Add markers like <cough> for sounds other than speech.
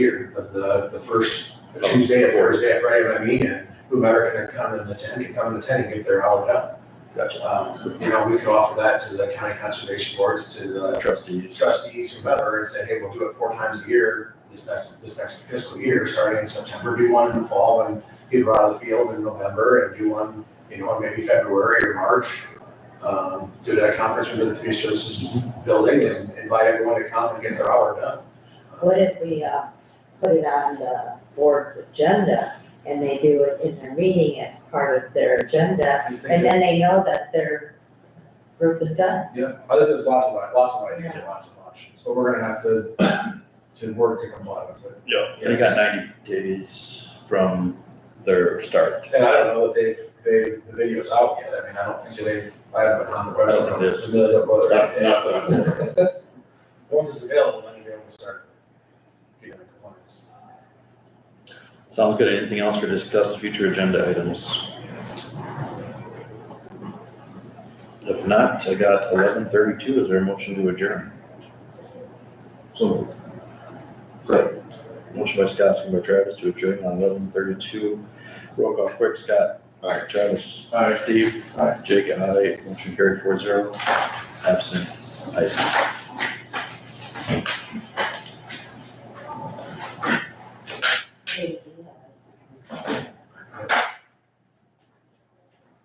here, of the, the first Tuesday, or Thursday, or Friday, I mean, and whomever can come and attend, can come and attend and get their hour done. Gotcha. Um, you know, we could offer that to the county conservation boards, to the Trustees. trustees, whomever, and say, hey, we'll do it four times a year this next, this next fiscal year, starting in September, do one in the fall and get it out of the field in November and do one, you know, maybe February or March. Um, do that conference under the community services building and invite everyone to come and get their hour done. Um, What if we, uh, put it on the board's agenda and they do it in their meeting as part of their agenda? And then they know that their group is done. Yeah, I think there's lots of, lots of ideas and lots of options, but we're gonna have to, to work to comply with it. Yeah, they got ninety days from their start. And I don't know that they've, they, the video's out yet, I mean, I don't think that they've, I haven't been on the website. I don't think it is. Familiar with whether- Not- not <laughs> Once it's available, then you'll be able to start getting into compliance. Sounds good. Anything else for discuss future agenda items? If not, I got eleven thirty-two. Is there a motion to adjourn? So. Second. Motion by Scott, second by Travis to adjourn on eleven thirty-two. Roll call quick, Scott. Aye. Travis. Steve. Aye. Jake, aye. Motion carried four zero. Absent. Ayes.